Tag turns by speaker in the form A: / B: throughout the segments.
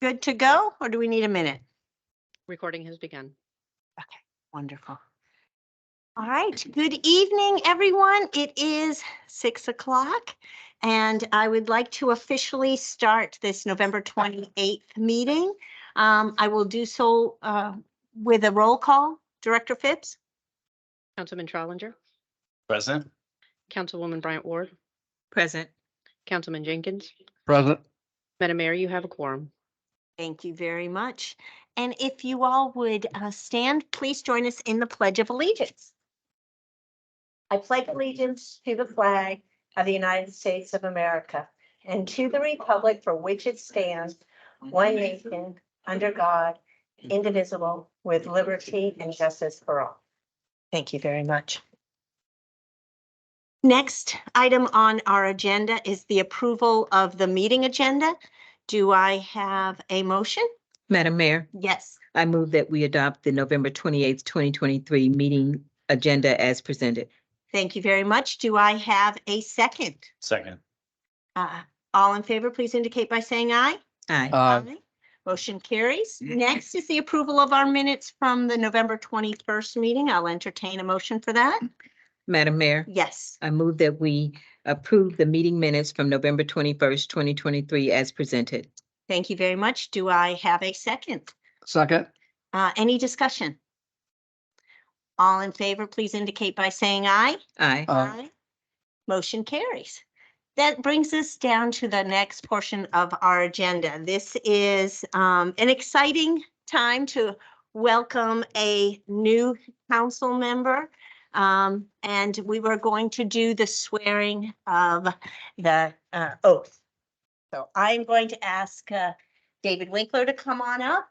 A: good to go, or do we need a minute?
B: Recording has begun.
A: Wonderful. All right, good evening, everyone. It is six o'clock. And I would like to officially start this November twenty-eighth meeting. Um, I will do so uh, with a roll call. Director Phipps,
B: Councilman Trolinger,
C: Present.
B: Councilwoman Bryant Ward,
D: Present.
B: Councilman Jenkins.
C: Present.
B: Madam Mayor, you have a quorum.
A: thank you very much. And if you all would uh, stand, please join us in the Pledge of Allegiance. I pledge allegiance to the flag of the United States of America and to the republic for which it stands, one nation, under God, indivisible, with liberty and justice for all. Thank you very much. Next item on our agenda is the approval of the meeting agenda. Do I have a motion?
D: Madam Mayor,
A: Yes.
D: I move that we adopt the November twenty-eighth, twenty twenty-three meeting agenda as presented.
A: Thank you very much. Do I have a second?
C: Second.
A: Uh, All in favor, please indicate by saying aye.
D: Aye.
C: Aye.
A: Motion carries. Next is the approval of our minutes from the November 21st meeting. I'll entertain a motion for that.
D: Madam Mayor,
A: Yes.
D: I move that we approve the meeting minutes from November twenty-first, twenty twenty-three as presented.
A: Thank you very much. Do I have a second?
C: Second.
A: Uh, Any discussion? All in favor, please indicate by saying aye.
D: Aye.
C: uh,
A: Aye. Motion carries. That brings us down to the next portion of our agenda. This is um, an exciting time to welcome a new council member. Um, And we were going to do the swearing of the uh, oath. So I'm going to ask uh, David Winkler to come on up.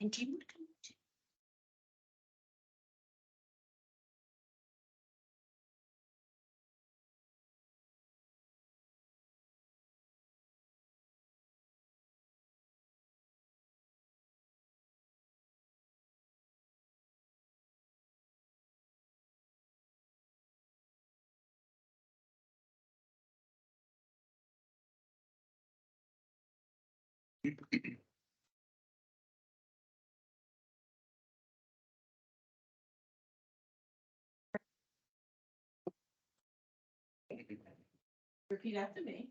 A: And do you want to come? too?
E: Repeat after me.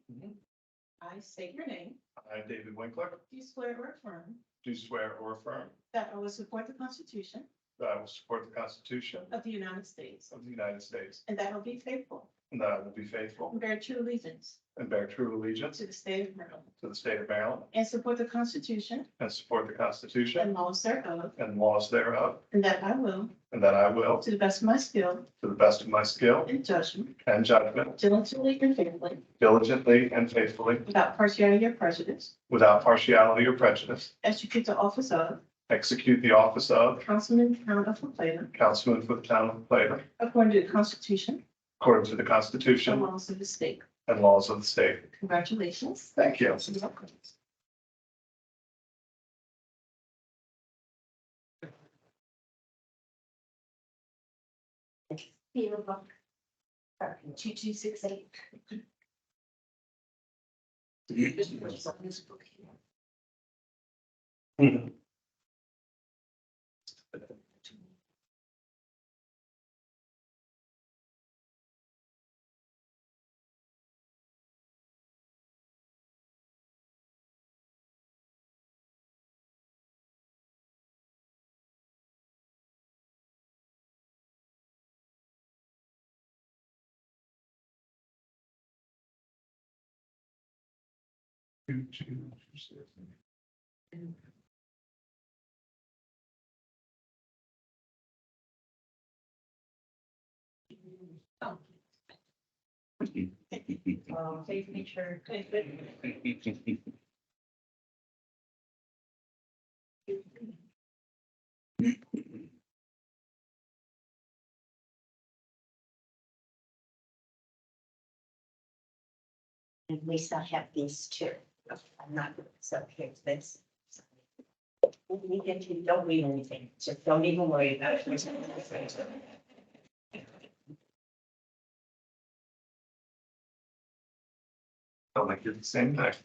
E: I state your name.
C: Mhm. I, David Winkler,
E: Do you swear or affirm
C: do swear or affirm
E: that I will support the Constitution
C: that I will support the Constitution
E: of the United States
C: of the United States
E: and that I will be faithful
C: and that I will be faithful
E: and bear true allegiance
C: and bear true allegiance
E: to the state of Maryland
C: to the state of Maryland
E: and support the Constitution
C: and support the
E: and
C: Constitution
E: laws thereof
C: and laws thereof,
E: and that I will,
C: and that I will,
E: to the best of my skill
C: to the best of my skill
E: and judgment,
C: and judgment,
E: diligently and faithfully,
C: diligently and faithfully,
E: without partiality or prejudice,
C: without partiality or prejudice,
E: execute the office of
C: execute the office of
E: Councilman Count of Plato
C: councilman for the town of Plato
E: according to the Constitution
C: according to the
E: and
C: Constitution
E: laws of the state.
C: and laws of the state.
E: Congratulations.
C: Thank you.
E: You're welcome.
A: Two, two, six, eight.
E: Um, Please make sure.
A: At least I have these two. I'm not, so here's this. When we get to, don't read anything, just don't even worry about it.
C: Don't like you the same thing.